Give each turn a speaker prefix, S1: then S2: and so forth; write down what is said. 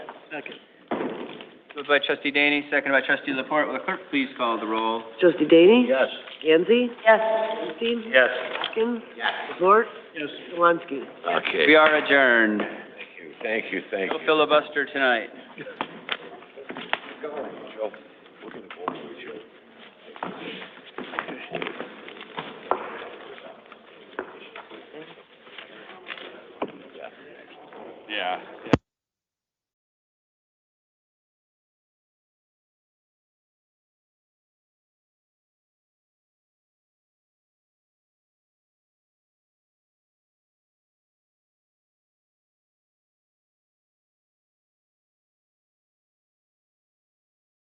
S1: Second.
S2: Moved by trustee Daney, seconded by trustee Laporte. Will the clerk please call the roll?
S3: Trustee Daney?
S1: Yes.
S3: Yancy?
S4: Yes.
S3: Weinstein?
S1: Yes.
S3: Hopkins? Laporte?
S1: Yes.
S3: Walensky?
S5: Okay.
S2: We are adjourned.
S5: Thank you, thank you, thank
S2: No
S5: you.
S2: filibuster tonight.
S5: Joe, we're gonna go over with Joe. Yeah.